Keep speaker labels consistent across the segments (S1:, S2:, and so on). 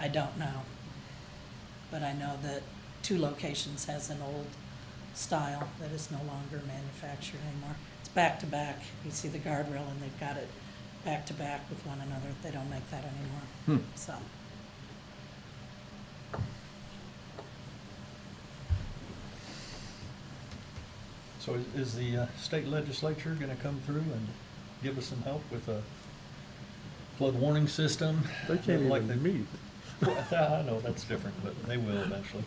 S1: I don't know. But I know that two locations has an old style that is no longer manufactured anymore. It's back to back. You see the guardrail and they've got it back to back with one another. They don't make that
S2: Hmm.
S1: anymore, so.
S3: So is- is the uh, state legislature going to come through and give us some help with a flood warning system?
S2: They can't
S3: Like
S2: even meet.
S3: I know, that's different, but they will eventually.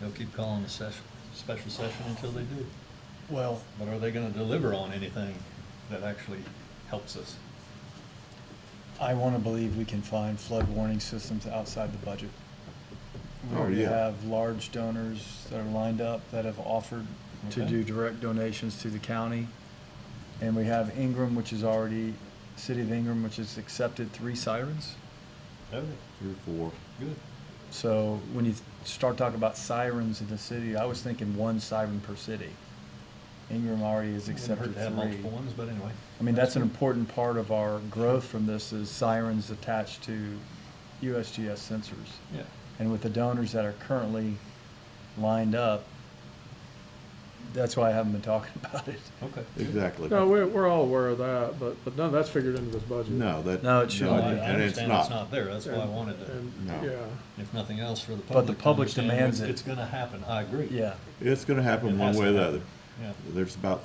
S3: They'll keep calling a session, special session until they do.
S4: Well,
S3: But are they going to deliver on anything that actually helps us?
S4: I want to believe we can find flood warning systems outside the budget. We
S2: Oh,
S4: already
S2: yeah.
S4: have large donors that are lined up that have offered to
S3: Okay.
S4: do direct donations to the county. And we have Ingram, which is already, City of Ingram, which has accepted three sirens.
S3: Okay,
S2: Three, four.
S3: good.
S4: So when you start talking about sirens in the city, I was thinking one siren per city. Ingram already has
S3: Wouldn't hurt
S4: accepted
S3: to have
S4: three.
S3: multiple ones, but anyway.
S4: I mean, that's an important part of our growth from this is sirens attached to USGS sensors.
S3: Yeah,
S4: And with the donors that are currently lined up, that's why I haven't been talking about it.
S3: okay.
S5: Exactly.
S2: No, we're, we're all aware of that, but, but none of that's figured into this budget.
S5: No, that.
S4: No, it should
S3: No,
S4: be.
S3: I I
S5: And it's
S3: understand it's
S5: not.
S3: not there, that's why I
S2: And-
S3: wanted to,
S2: and-
S5: No.
S2: Yeah,
S3: if nothing else, for the
S4: But
S3: public
S4: the
S3: to
S4: public
S3: understand
S4: demands
S3: it's-
S4: it.
S3: It's going to happen, I agree.
S4: Yeah,
S5: It's gonna
S3: It
S5: happen one
S3: has
S5: way or
S3: to
S5: the other.
S3: happen. Yeah.
S5: There's about,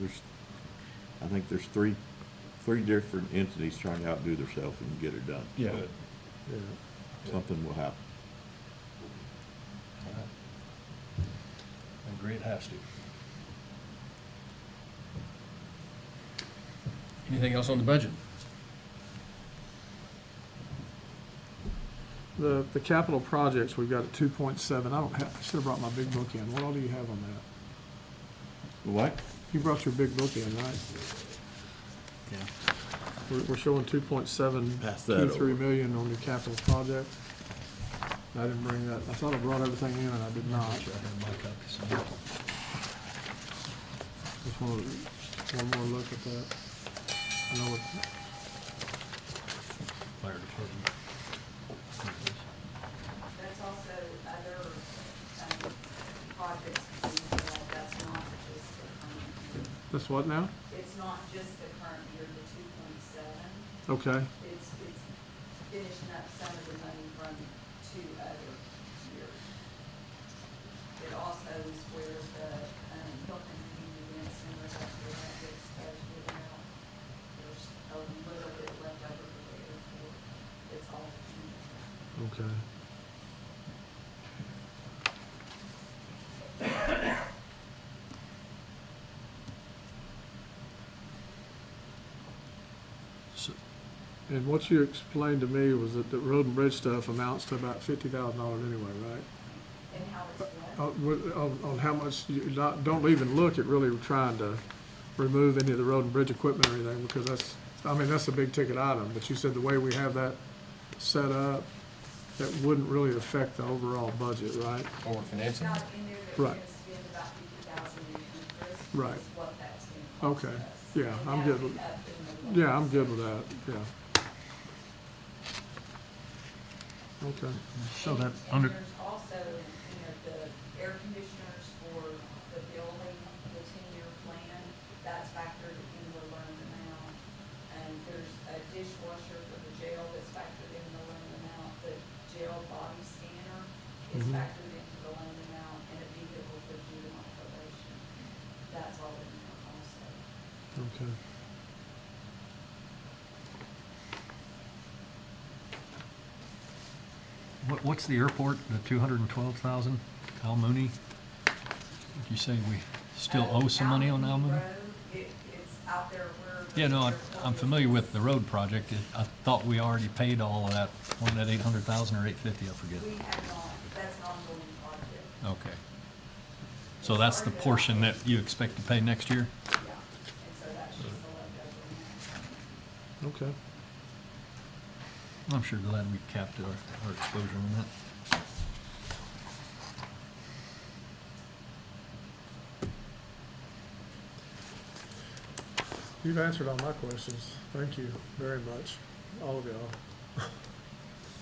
S5: there's, I think there's three, three different entities trying to outdo themselves and get it done.
S4: yeah.
S3: Good.
S2: yeah.
S5: Something will happen.
S3: All right. I agree, it has to.
S6: Anything else on the budget?
S2: The, the capital projects, we've got a two point seven. I don't have, I should've brought my big book in. What all do you have on that?
S5: What?
S2: You brought your big book in, right?
S5: Yeah.
S2: We're, we're showing two point seven,
S5: Pass that
S2: two, three
S5: over.
S2: million on your capital project. I didn't bring that, I thought I brought everything in and I did not.
S3: Sure, I have my copy somewhere.
S2: Just want one more look at that. I know it-
S3: Fire department.
S7: That's also other um, projects, that- that's not just the current year.
S2: That's what now?
S7: It's not just the current year, the two point seven,
S2: Okay,
S7: it's, it's finishing up some of the money from two other years. It also is where the um, Hilton Community and some of that, that gets budgeted out. There's a little bit left over for the airport, it's all in.
S2: okay.
S3: So-
S2: And what you explained to me was that the road and bridge stuff amounts to about fifty thousand dollars anyway, right?
S7: And how it's done.
S2: Uh, with- On, on how much, you not, don't even look at really trying to remove any of the road and bridge equipment or anything, because that's, I mean, that's a big ticket item, but you said the way we have that set up, that wouldn't really affect the overall budget, right?
S6: Or we're financing?
S7: Not in there, but we're
S2: Right.
S7: gonna spend about fifty thousand in interest. is
S2: Right.
S7: what that's gonna cost
S2: Okay.
S7: us.
S2: Yeah,
S7: And
S2: I'm
S7: that'll
S2: good
S7: be
S2: with-
S7: up in the
S2: Yeah, I'm
S7: loans.
S2: good with that, yeah. Okay,
S4: So
S7: And-
S4: that
S7: and
S6: under-
S7: there's also, you know, the air conditioners for the building, the ten-year plan, that's factored in the loan amount. And there's a dishwasher for the jail that's factored in the loan amount, the jail body scanner is
S4: Mm-hmm.
S2: Mhm.
S7: factored into the loan amount, and a vehicle for juvenile probation. That's all in there also.
S2: okay.
S3: What, what's the airport, the two hundred and twelve thousand, Al Mooney? You say we still
S7: Uh,
S3: owe some money on Al
S7: Allen
S3: Mooney?
S7: Road, it- it's out there where the-
S3: Yeah, no, I- I'm familiar with the road project. It- I thought we already paid all of that, wasn't that eight hundred thousand or eight fifty, I forget.
S7: We have not, that's an ongoing project,
S3: Okay. So that's the portion that you expect to pay next year?
S7: yeah, and so that's just a leftover.
S2: Okay.
S3: I'm sure glad we capped our, our exposure on that.
S2: You've answered all my questions. Thank you very much, all of y'all.